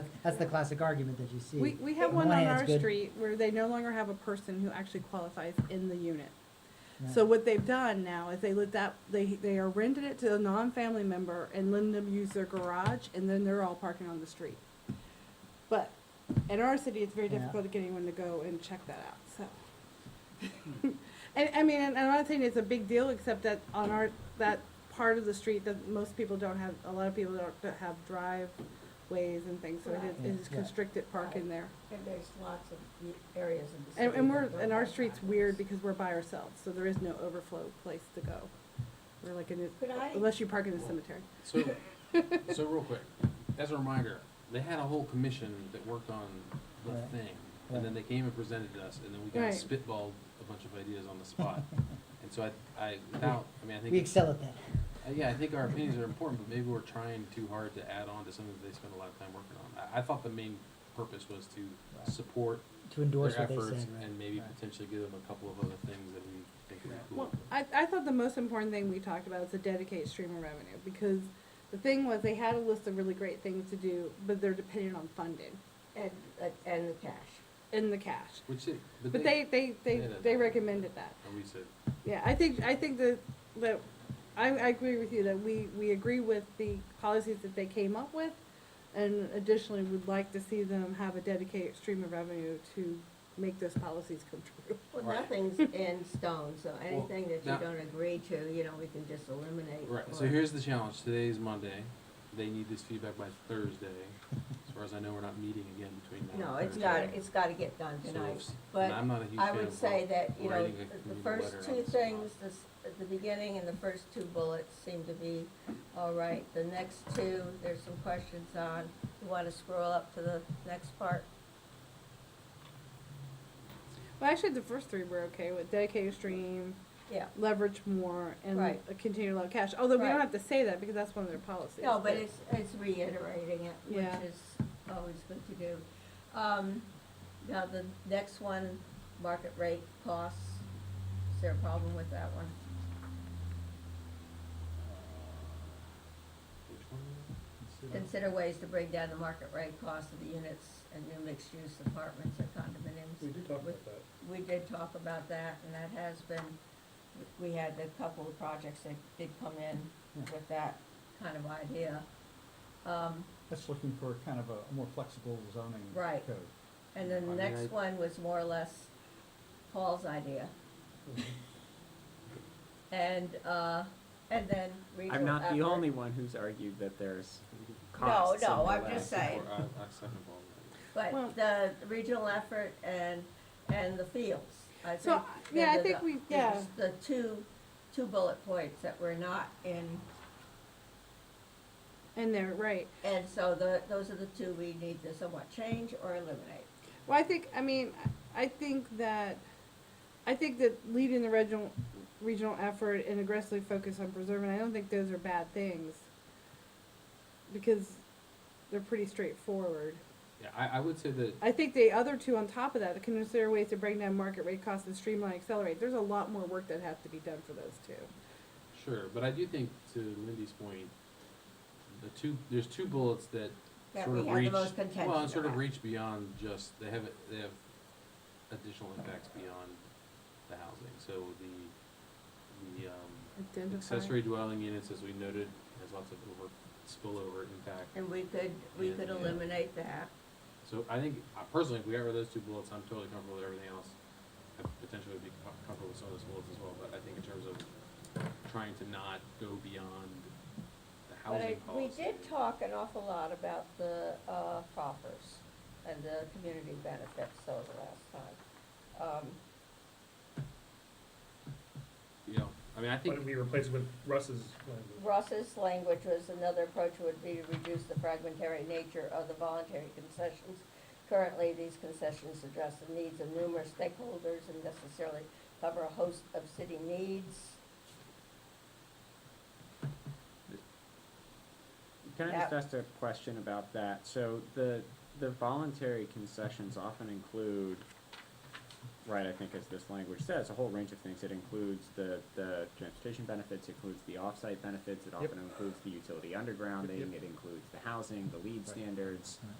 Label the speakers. Speaker 1: That's- That's the classic argument that you see.
Speaker 2: We, we have
Speaker 1: On
Speaker 2: one
Speaker 1: one
Speaker 2: on
Speaker 1: hand,
Speaker 2: our
Speaker 1: it's good.
Speaker 2: street where they no longer have a person who actually qualifies in the unit.
Speaker 1: Right.
Speaker 2: So what they've done now is they let that, they, they are rented it to a non-family member and letting them use their garage, and then they're all parking on the street. But in our city, it's very
Speaker 1: Yeah.
Speaker 2: difficult to get anyone to go and check that out, so. And, I mean, and I'm not saying it's a big deal, except that on our, that part of the street that most people don't have, a lot of people don't don't have driveways and things, so it
Speaker 1: Right.
Speaker 2: is- is
Speaker 1: Yeah.
Speaker 2: constricted parking there.
Speaker 3: And there's lots of u- areas in the city.
Speaker 2: And, and we're,
Speaker 3: that don't
Speaker 2: and our
Speaker 3: have
Speaker 2: street's
Speaker 3: sidewalks.
Speaker 2: weird because we're by ourselves, so there is no overflow place to go. We're like in,
Speaker 3: Could I-
Speaker 2: a- unless you park in the cemetery.
Speaker 4: So, so real quick, as a reminder, they had a whole commission that worked on the
Speaker 1: Right.
Speaker 4: thing, and then they came and presented to us, and then we
Speaker 2: Right.
Speaker 4: kind of spitballed a bunch of ideas on the spot. And so I, I, without, I mean, I
Speaker 1: We
Speaker 4: think,
Speaker 1: excel at that.
Speaker 4: uh, yeah, I think our opinions are important, but maybe we're trying too hard to add on to something that they spend a lot of time working on. I, I thought the main purpose was
Speaker 1: Right.
Speaker 4: to support
Speaker 1: To
Speaker 4: their
Speaker 1: endorse what they
Speaker 4: efforts
Speaker 1: said, right?
Speaker 4: and maybe
Speaker 1: right.
Speaker 4: potentially give them a couple of other things that we think would be
Speaker 2: Well,
Speaker 4: cool.
Speaker 2: I, I thought the most important thing we talked about is to dedicate stream of revenue, because the thing was, they had a list of really great things to do, but they're dependent on funding
Speaker 3: And, uh, and the cash.
Speaker 2: in the cash.
Speaker 4: Which it,
Speaker 2: But they, they,
Speaker 4: they
Speaker 2: they,
Speaker 4: did
Speaker 2: they
Speaker 4: that.
Speaker 2: recommended that.
Speaker 4: And we said,
Speaker 2: Yeah, I think, I think that, that, I, I agree with you that we, we agree with the policies that they came up with. And additionally, would like to see them have a dedicated stream of revenue to make those policies come true.
Speaker 3: Well,
Speaker 4: Right.
Speaker 3: nothing's in stone, so anything that
Speaker 4: now-
Speaker 3: you don't agree to, you know, we can just eliminate.
Speaker 4: Right, so
Speaker 3: or-
Speaker 4: here's the challenge, today is Monday, they need this feedback by Thursday, as far as I know, we're not meeting again between now
Speaker 3: No,
Speaker 4: and
Speaker 3: it's got,
Speaker 4: Thursday.
Speaker 3: it's gotta get done
Speaker 4: So
Speaker 3: tonight.
Speaker 4: it's-
Speaker 3: but
Speaker 4: and I'm not a huge
Speaker 3: I
Speaker 4: fan
Speaker 3: would
Speaker 4: of
Speaker 3: say that, you know,
Speaker 4: writing a
Speaker 3: the- the
Speaker 4: community
Speaker 3: first
Speaker 4: letter on
Speaker 3: two
Speaker 4: the spot.
Speaker 3: things, this, at the beginning and the first two bullets seem to be all right. The next two, there's some questions on. You wanna scroll up to the next part?
Speaker 2: Well, actually, the first three were okay with dedicated stream,
Speaker 3: Yeah.
Speaker 2: leverage more, and
Speaker 3: Right.
Speaker 2: a continued low cash. Although we don't
Speaker 3: Right.
Speaker 2: have to say that because that's one of their policies.
Speaker 3: No, but it's, it's reiterating it, which
Speaker 2: Yeah.
Speaker 3: is always good to do. Um, now the next one, market rate costs, is there a problem with that one?
Speaker 4: Which one? Consider-
Speaker 3: Consider ways to bring down the market rate cost of the units and new mixed-use apartments or condominiums.
Speaker 5: We did talk about that.
Speaker 3: We did talk about that, and that has been, we had a couple of projects that did come in with that kind of idea. Um,
Speaker 6: That's looking for kind of a more flexible zoning code.
Speaker 3: Right. and then
Speaker 4: I
Speaker 3: the
Speaker 4: mean, I-
Speaker 3: next one was more or less Paul's idea. And, uh, and then regional
Speaker 7: I'm not the
Speaker 3: effort.
Speaker 7: only one who's argued that there's costs.
Speaker 3: No, no,
Speaker 7: in the
Speaker 3: I'm
Speaker 7: way.
Speaker 3: just saying,
Speaker 4: Or I, I second all that.
Speaker 2: Well-
Speaker 3: but the regional effort and, and the fields. I
Speaker 2: So,
Speaker 3: think
Speaker 2: I- yeah, I
Speaker 3: they're the-
Speaker 2: think we-
Speaker 3: they're
Speaker 2: yeah.
Speaker 3: just The two, two bullet points that were not in
Speaker 2: and they're right.
Speaker 3: And so the, those are the two we need to somewhat change or eliminate.
Speaker 2: Well, I think, I mean, I think that, I think that leading the regional, regional effort and aggressively focus on preserving, I don't think those are bad things. Because they're pretty straightforward.
Speaker 4: Yeah, I, I would say that,
Speaker 2: I think the other two on top of that, to consider ways to bring down market rate costs and streamline, accelerate, there's a lot more work that has to be done for those two.
Speaker 4: sure, but I do think to Lindy's point, the two, there's two bullets that
Speaker 3: That
Speaker 4: sort
Speaker 3: we
Speaker 4: of
Speaker 3: have the
Speaker 4: reach,
Speaker 3: most contention
Speaker 4: well, and sort of
Speaker 3: about.
Speaker 4: reach beyond just, they have, they have additional impacts beyond the housing, so the, the, um, accessory dwelling units, as we noted, has lots of over, spillover impact.
Speaker 3: And we could, we could
Speaker 4: Yeah.
Speaker 3: eliminate that.
Speaker 4: So I think, uh, personally, if we got rid of those two bullets, I'm totally comfortable with everything else. I potentially would be com- comfortable with some of those bullets as well, but I think in terms of trying to not go beyond the
Speaker 3: But I,
Speaker 4: housing
Speaker 3: we
Speaker 4: policy.
Speaker 3: did talk an awful lot about the, uh, proffers and the community benefits, so the last time. Um,
Speaker 4: You know, I mean, I
Speaker 5: Why
Speaker 4: think.
Speaker 5: don't we replace it with Russ's language?
Speaker 3: Russ's language was another approach would be to reduce the fragmentary nature of the voluntary concessions. Currently, these concessions address the needs of numerous stakeholders and necessarily cover a host of city needs.
Speaker 7: Can I just
Speaker 3: Yeah.
Speaker 7: ask a question about that? So the, the voluntary concessions often include, right, I think as this language says, a whole range of things. It includes the, the transportation benefits, includes the off-site benefits, it often includes the utility undergrounding,
Speaker 5: yep.
Speaker 7: it includes the housing, the lead standards.
Speaker 6: Right.